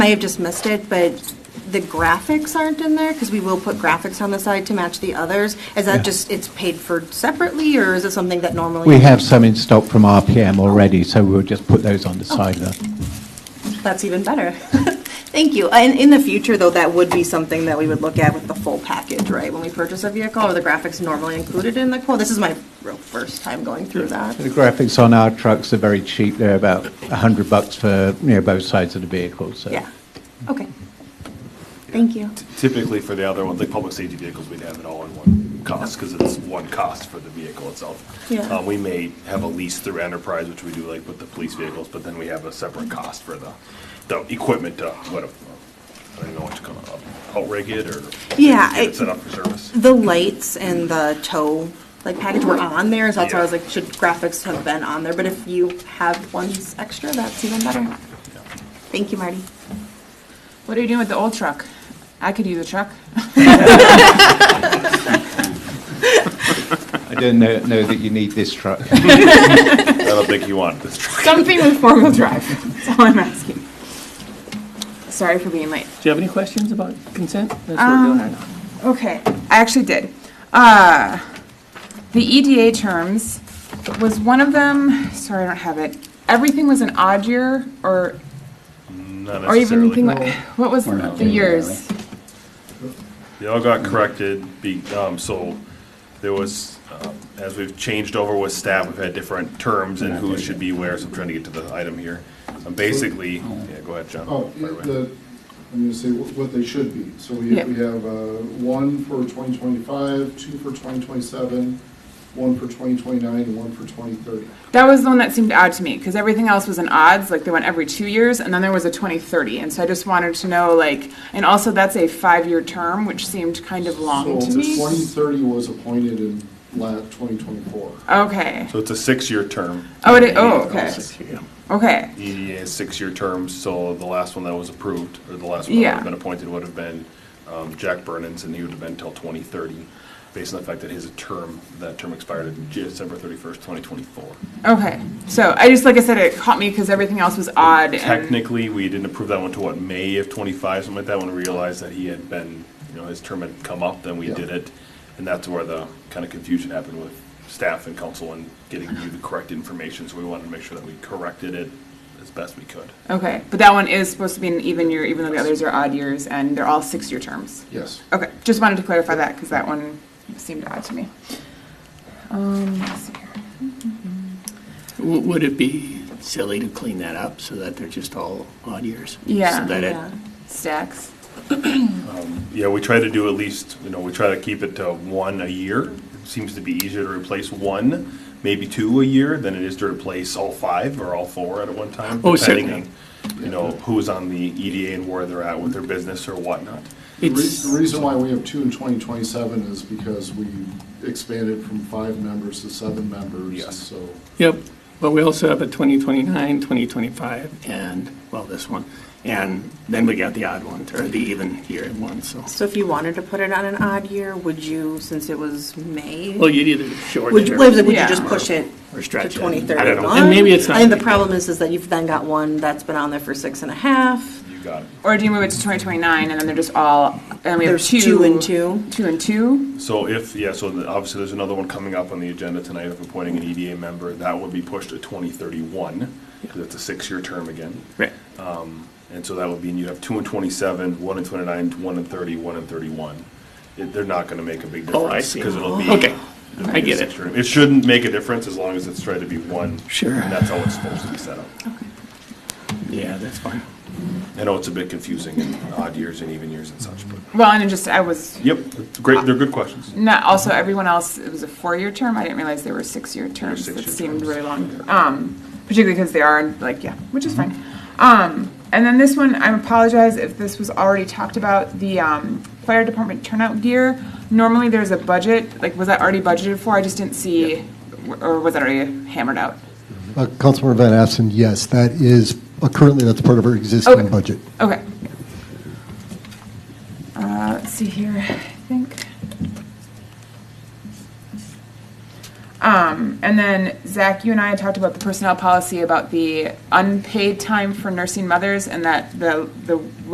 I have just missed it, but the graphics aren't in there, because we will put graphics on the side to match the others. Is Yeah. that just, it's paid for separately, or is it something that normally? We have some in stock from RPM already, so we'll just put those on the side there. That's even better. Thank you. And in the future, though, that would be something that we would look at with the full package, right? When we purchase a vehicle, are the graphics normally included in the quote? This is my real first time going through that. The graphics on our trucks are very cheap. They're about 100 bucks for, you know, both sides of the vehicle, so. Yeah, okay. Thank you. Typically for the other ones, like public safety vehicles, we'd have it all in one cost because it's one cost for the vehicle itself. Yeah. Uh, We may have a lease through enterprise, which we do like with the police vehicles, but then we have a separate cost for the, the equipment to, what, a- I don't know what to call it, out rig it or? Yeah, Get I- it set up for service. The lights and the tow, like package were on there, so that's why I was Yeah. like, should graphics have been on there? But if you have ones extra, that's even better. Thank you, Marty. What are you doing with the old truck? I could use a truck. I don't know know that you need this truck. I don't think you want this truck. Something with four-wheel drive, that's all I'm asking. Sorry for being late. Do you have any questions about consent? That's what we're doing right now. Okay, I actually did. Uh, The EDA terms, was one of them, sorry, I don't have it. Everything was an odd year, or, Not or even, thing necessarily. like- what was the years? They all got corrected, be, um, so there was, um, as we've changed over with staff, we've had different terms and who should be where, so I'm trying to get to the item here. Um, Basically, yeah, go ahead, John. Oh, Right away. the, I'm gonna say wh- what they should be. So we, Yeah. we have, uh, one for twenty twenty-five, two for twenty twenty-seven, one for twenty twenty-nine, and one for twenty thirty. That was the one that seemed odd to me because everything else was in odds, like they went every two years, and then there was a 2030. And so I just wanted to know, like, and also that's a five year term, which seemed kind of long So to me. twenty thirty was appointed in la, twenty twenty-four. Okay. So it's a six-year term. Oh, it is, oh, okay. Yeah. Okay. EDA is six-year terms, so the last one that was approved, or the last one that would Yeah. have been appointed would have been um, Jack Burnens, and he would have been till 2030, based on the fact that his term, that term expired in December 31st, 2024. Okay. So I just, like I said, it caught me because everything else was odd. And, Technically, we didn't approve that one to what, May of twenty-five, something like that, when we realized that he had been, you know, his term had come up, then we Yeah. did it. And that's where the kind of confusion happened with staff and council and getting you the correct information, so we wanted to make sure that we corrected it as best we could. okay. But that one is supposed to be an even year, even though the others are odd years, and they're all six year terms. Yes. Okay. Just wanted to clarify that because that one seemed odd to me. Um, let's see here. W- Would it be silly to clean that up so that they're just all odd years? Yeah. So that it, Yeah. Stacks. Yeah, we try to do at least, you know, we try to keep it to one a year. Seems to be easier to replace one, maybe two a year than it is to replace all five or all four at one time. Oh, depending certainly. on You know, who's on the EDA and where they're at with their business or whatnot. The re- it's, the reason why we have two in twenty twenty-seven is because we expanded from five members to seven members. Yes. So, yep, but we also have a 2029, 2025, and, well, this one. And then we got the odd one, or the even year one, so. So if you wanted to put it on an odd year, would you, since it was May? Well, you'd either short Would it you, or. would you Yeah. just push it Or to stretch it. 2031? I don't know. And maybe it's I not think the a big problem is, is that you've then got one that's been on there for six and a half. You got it. Or do you move it to 2029 and then they're just all, and we have There's two? two and two. Two and two? So if, yeah, so the- obviously there's another one coming up on the agenda tonight of appointing an EDA member. That would be pushed to 2031, because it's a six-year term again. Right. And so that would mean you have two and 27, one and 29, one and 30, one and 31. It- They're not going to make a big difference. Oh, I see. Because it'll be. Okay, it'll be I get a it. six-year- It shouldn't make a difference as long as it's tried to be one. Sure. And that's how it's supposed to be set up. Yeah, that's fine. I know it's a bit confusing in odd years and even years and such, but, Well, and it just, I was, yep, it's great, they're good questions. not, also, everyone else, it was a four-year term, I didn't realize they were six-year terms, six-year that seemed terms. really long. Um, particularly because they are, like, yeah, which is fine. Um, and then this one, I apologize if this was already talked about, the, um, fire department turnout gear. Normally, there's a budget, like, was that already budgeted for? I just didn't see, or was that already hammered out? Uh, Councilmember Van Assen, yes, that is, uh, currently, that's part of our Okay. existing budget. Okay. Uh, let's see here, I think. Um, and then Zach, you and I had talked about the personnel policy about the unpaid time for nursing mothers and that the, the